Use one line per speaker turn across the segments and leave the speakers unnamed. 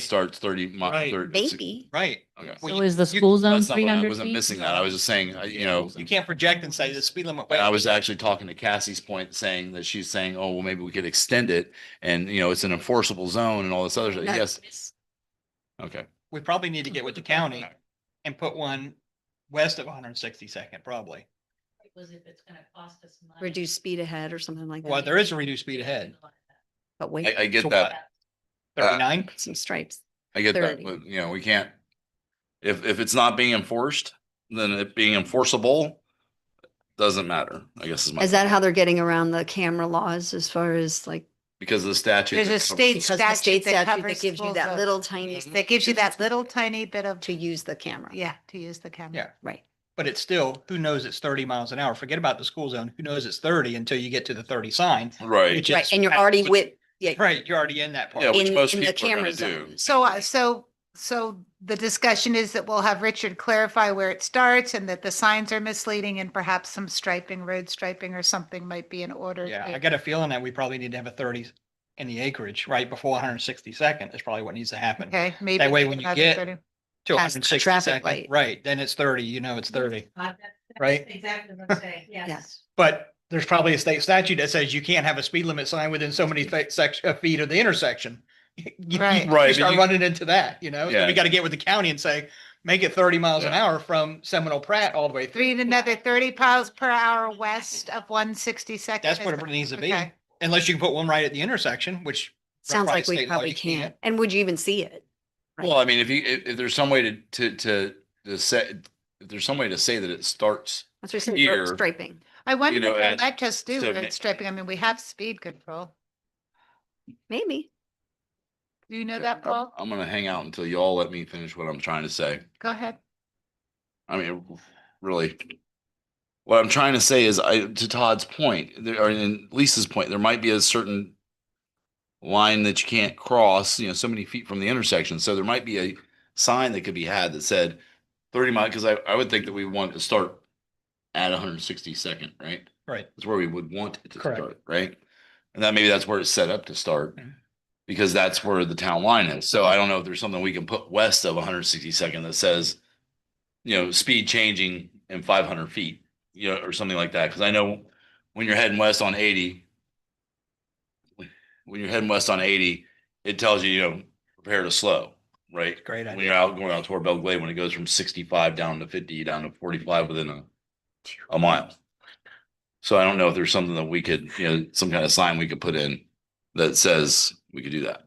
starts thirty mi-
Right.
thirty-
Maybe.
right?
Okay.
Well,
So
you-
is the
you-
school zone
That's not
three
what I I
hundred
wasn't
feet?
missing that. I was just saying, I- you know,
You can't project and say the speed limit.
I was actually talking to Cassie's point, saying that she's saying, oh, well, maybe we could extend it. And, you know, it's an enforceable zone and all this other, stuff.
No,
yes, okay.
We probably need to get with the county and put one west of one hundred and sixty second, probably.
Was if it's gonna cost us money.
Reduce speed ahead or something like
Well,
that,
there is a reduced speed ahead,
but
I,
wait,
I get
So
that. Uh,
thirty nine.
some stripes.
I get that.
30.
But, you know, we can't. If, if it's not being enforced, then it being enforceable doesn't matter, I guess is my,
Is that how they're getting around the camera laws as far as like?
because of the statute.
There's
that
a
co-
state
because the state
statute that
statute
covers
Gives you
school
that
zone.
little tiny,
Mhm.
That gives you that little tiny bit of,
to use the camera.
yeah, to use the camera.
Yeah.
Right.
But it's still, who knows it's thirty miles an hour? Forget about the school zone. Who knows it's thirty until you get to the thirty sign?
Right.
which
Right.
is-
And you're already
which-
with, yeah.
Right, you're already in that part.
Yeah, Uh, which
in-
most
in the
people are gonna
camera
do.
zone.
So, I- so, so the discussion is that we'll have Richard clarify where it starts and that the signs are misleading and perhaps some striping, road striping or something might be in order.
Yeah,
to-
I got a feeling that we probably need to have a thirty in the acreage, right before one hundred and sixty second is probably what needs to happen.
Okay, maybe.
That way
we
when
can
you
have it
get
ready.
To one hundred
past the
and sixty
traffic
second,
light.
right, then it's thirty, you know, it's thirty.
Uh, that- that's
Right?
Exactly what I'm saying, yes.
But there's probably a state statute that says you can't have a speed limit sign within so many fe- sec- uh, feet of the intersection. You- you-
Right.
you
Right, but
Start
you-
running into that, you know, so
Yeah.
we gotta get with the county and say, make it thirty miles an hour from Seminole Pratt all the way through.
Three and another thirty miles per hour west of one sixty second.
That's what it needs to be,
Okay.
unless you can put one right at the intersection, which.
Sounds
probably
like we
state law,
probably
you can't.
can't. And would you even see it? Right.
Well, I mean, if you, if, if there's some way to, to, to, to say, if there's some way to say that it starts
That's what I said,
Here.
striping.
I wonder,
know,
if they
and
might just do
so
road
ma-
striping. I mean, we have speed control.
Maybe.
Do you know
um,
that, Paul?
I'm gonna hang out until y'all let me finish what I'm trying to say.
Go ahead.
I mean, really. What I'm trying to say is I, to Todd's point, there or in Lisa's point, there might be a certain line that you can't cross, you know, so many feet from the intersection. So there might be a sign that could be had that said thirty mile, because I, I would think that we want to start at hundred and sixty second, right?
Right.
That's where we would want it to
Correct.
start, right? And that maybe that's where it's set up to start
Mhm.
because that's where the town line is. So I don't know if there's something we can put west of 162nd that says, you know, speed changing in 500 feet, you know, or something like that. Cause I know when you're heading west on 80, when you're heading west on 80, it tells you, you know, prepare to slow, right?
Great
When
idea.
you're out going out toward Bell Glade, when it goes from 65 down to 50, down to 45 within a a mile. So I don't know if there's something that we could, you know, some kind of sign we could put in that says we could do that.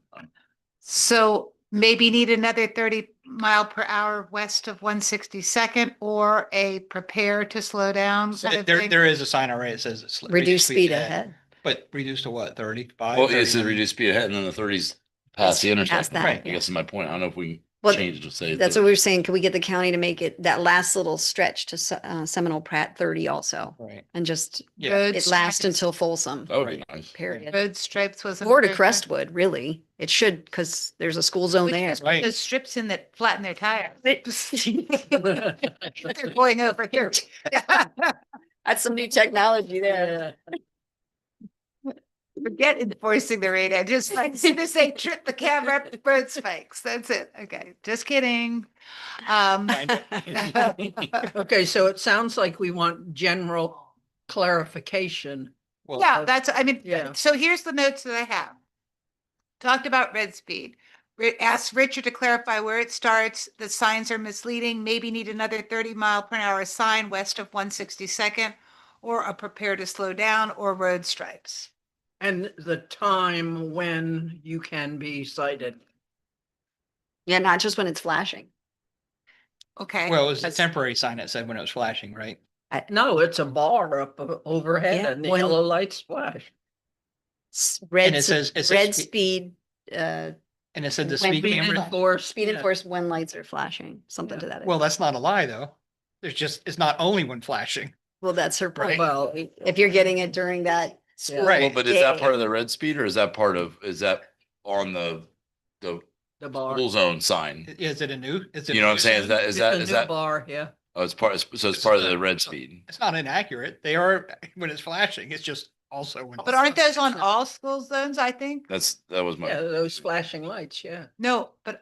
So maybe need another thirty mile per hour west of one sixty second or a prepare to slow down. kind
There-
of
There,
thing?
there is a sign already that says. it's
Reduce speed ahead.
But reduced to what, thirty, five?
Well, it's a reduced speed ahead and then the thirties past the intersection.
that,
I
Right.
yeah.
guess is my point. I don't know if we
Well,
change to say.
That's
that-
what we were saying. Could we get the county to make it that last little stretch to Se- uh, Seminole Pratt thirty also?
Right,
And just
yeah,
Road
it lasts
stripes-
until Folsom,
That
Oh.
would be nice.
period.
Road stripes was.
Or to
another thing.
Crestwood, really. It should, because there's a school zone
We
there.
just put
Right.
Those strips in that flatten their tires. They're going over here.
That's some new technology there.
Forget enforcing the radar, just like, as soon as they trip the camera, up, the road spikes, that's it, okay, just kidding. Um,
Okay, so it sounds like we want general clarification.
well, uh,
yeah, that's, I mean, uh,
Yeah.
so here's the notes that I have. Talked about red speed, Ri- asked Richard to clarify where it starts, the signs are misleading, maybe need another thirty mile per hour sign west of one sixty-second, or a prepare to slow down, or road stripes.
And the time when you can be cited.
Yeah, not just when it's flashing.
Okay.
well, it was a temporary sign that said when it was flashing, right?
No, it's a bar up o- overhead
Yeah,
and the
when-
yellow lights flash.
S-
And
Red,
it
s-
says, it
red
says,
speed, uh,
and it said the
when
speed
we
camera.
enforced.
speed enforced when lights are flashing, something to that.
Well,
effect.
that's not a lie, though. There's just, it's not only when flashing.
Well, that's her point.
Well.
If you're getting it during that school.
Right.
Well, but is that part of the red speed or is that part of, is that on the, the
The bar.
pool zone sign?
I- Is it a new? is it
You
a
know what I'm
new
saying? Is
sign?
that, is
It's
that,
a
is
new
that,
Bar, yeah.
oh, it's part, so it's part of the red speed.
It's not inaccurate. They are, when it's flashing, it's just also when.
But aren't those on all school zones, I think?
That's, that was my.
Yeah, those flashing lights, yeah.
No, but